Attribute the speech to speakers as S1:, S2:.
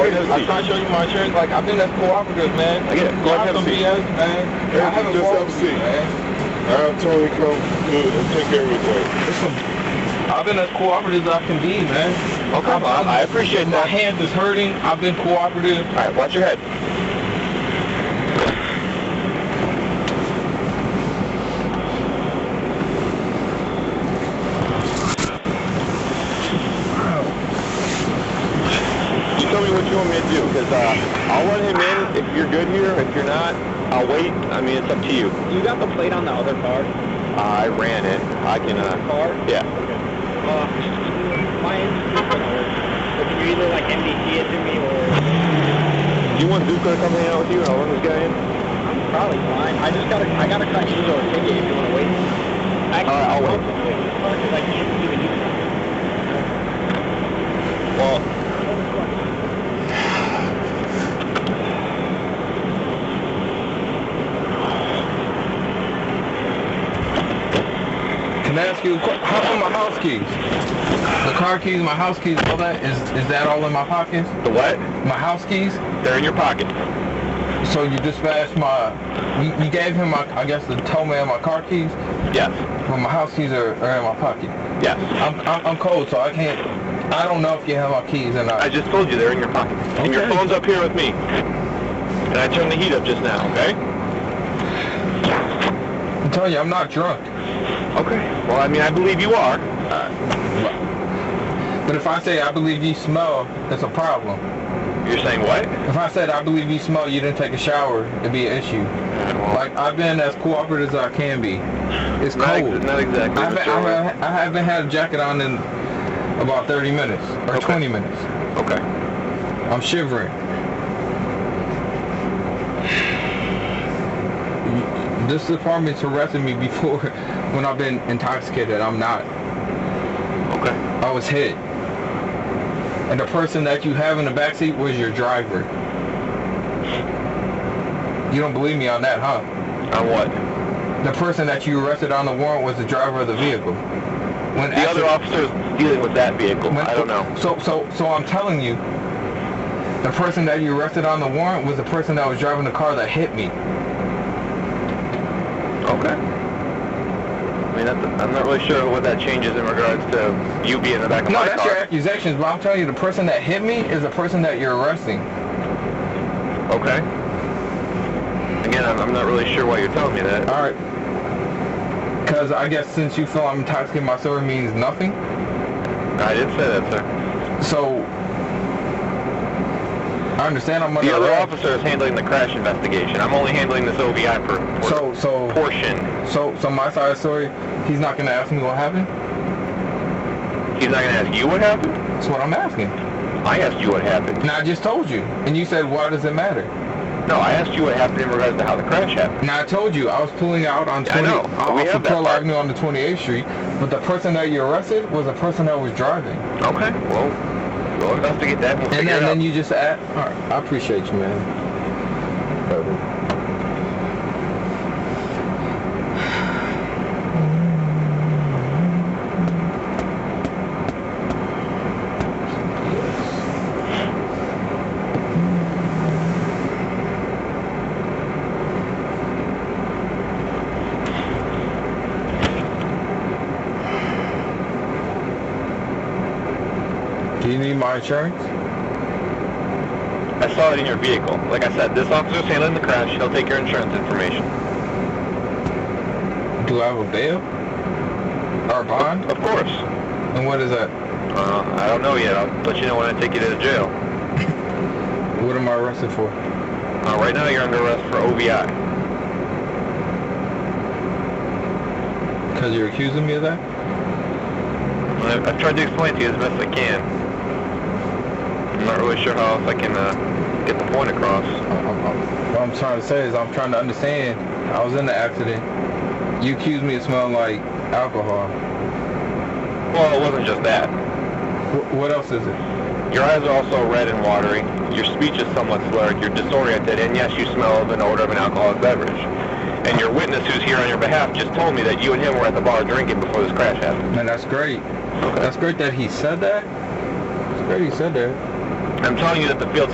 S1: I'm not showing you my insurance. Like, I've been at cooperative, man.
S2: I get it. Go
S1: Drop
S2: ahead and
S1: some
S2: have a seat.
S1: BS, man. I
S3: Eric,
S1: haven't
S3: just
S1: walked
S3: have a
S1: with you,
S3: seat.
S1: man.
S3: I'll have Tony come do it and take care of it.
S1: I've been as cooperative as I can be, man.
S2: Okay,
S1: I'm-
S2: I-
S1: I'm-
S2: I appreciate
S1: My
S2: that.
S1: hand is hurting. I've been cooperative.
S2: All right, watch your head. You tell me what you want me to do, because uh, I'll let him in if you're good here. If you're not, I'll wait. I mean, it's up to you.
S4: You got the plate on the other car?
S2: I ran it. I can, uh,
S4: Car?
S2: yeah.
S4: Uh, my insurance doesn't work. So can you either like MDT it to me or...
S2: Do you want Zuko to come hang out with you and I'll run this guy in?
S4: I'm probably fine. I just gotta, I gotta cut you a ticket if you wanna wait. Actually,
S2: Alright, I'll wait.
S4: wait. Like, you can even use it.
S2: Well,
S1: Can I ask you, a que- how about my house keys? The car keys, my house keys, all that, is, is that all in my pocket?
S2: the what?
S1: My house keys?
S2: They're in your pocket.
S1: So you dispatched my, you, you gave him my, I guess the tow man my car keys,
S2: Yes.
S1: but my house keys are, are in my pocket.
S2: Yes.
S1: I'm, I'm, I'm cold, so I can't, I don't know if you have my keys or
S2: I
S1: not.
S2: just told you they're in your pocket. And your
S1: Okay.
S2: phone's up here with me. And I turned the heat up just now, okay?
S1: I'm telling you, I'm not drunk.
S2: Okay. Well, I mean, I believe you are.
S1: But if I say I believe you smell, that's a problem.
S2: You're saying what?
S1: If I said I believe you smell, you didn't take a shower, it'd be an issue. Like I've been as cooperative as I can be. It's
S2: not, ex-
S1: cold.
S2: not exactly.
S1: I haven't,
S2: Mr.
S1: I, haven't, I haven't had a jacket on in about 30 minutes or
S2: Okay.
S1: 20 minutes.
S2: okay.
S1: I'm shivering. This department's harassing me before when I've been intoxicated. I'm not.
S2: Okay.
S1: I was hit. And the person that you have in the backseat was your driver. You don't believe me on that, huh?
S2: On what?
S1: The person that you arrested on the warrant was the driver of the vehicle. When
S2: The other officer's dealing with that vehicle.
S1: when-
S2: I don't know.
S1: So, so, so I'm telling you, the person that you arrested on the warrant was the person that was driving the car that hit me.
S2: Okay. I mean, that's, I'm not really sure what that changes in regards to you being in the back of
S1: No,
S2: my
S1: that's your
S2: car.
S1: accusations, but I'm telling you, the person that hit me is the person that you're arresting.
S2: Okay. Again, I'm, I'm not really sure why you're telling me that.
S1: All right. Because I guess since you feel I'm intoxicated, my story means nothing.
S2: I did say that, sir.
S1: So I understand I'm
S2: The
S1: under
S2: other
S1: arrest.
S2: officer is handling the crash investigation. I'm only handling this OVI for for
S1: So so
S2: portion.
S1: so so my side of the story, he's not gonna ask me what happened.
S2: He's not going to ask you what happened.
S1: That's what I'm asking.
S2: I asked you what happened.
S1: And I just told you. And you said, why does it matter?
S2: No, I asked you what happened in regards to how the crash happened.
S1: And I told you I was pulling out on
S2: Yeah, I
S1: 20
S2: know.
S1: off
S2: We
S1: of
S2: have that
S1: Pearl
S2: part.
S1: Avenue on the 28th Street, but the person that you arrested was the person that was driving.
S2: Okay. Well, we'll investigate that. And we'll figure
S1: And then,
S2: it out.
S1: then you just add. All right, I appreciate you, man. Do you need my insurance?
S2: I saw it in your vehicle. Like I said, this officer's handling the crash. He'll take your insurance information.
S1: Do I have a bail or a bond?
S2: Of course.
S1: And what is that?
S2: Uh, I don't know yet. I'll let you know when I take you to the jail.
S1: What am I arrested for?
S2: Uh, right now, you're under arrest for OVI.
S1: Because you're accusing me of that?
S2: I- I've tried to explain to you as best I can. I'm not really sure how else I can uh, get the point across.
S1: I'm, I'm- what I'm trying to say is I'm trying to understand. I was in the accident. You accused me of smelling like alcohol.
S2: Well, it wasn't just that.
S1: Wh- what else is it?
S2: Your eyes are also red and watery. Your speech is somewhat slurred. You're disoriented, and yes, you smell of an odor of an alcoholic beverage. And your witness, who's here on your behalf, just told me that you and him were at the bar drinking before this crash happened.
S1: Man, that's great. That's great that he said that. It's great he said that.
S2: I'm telling you that the field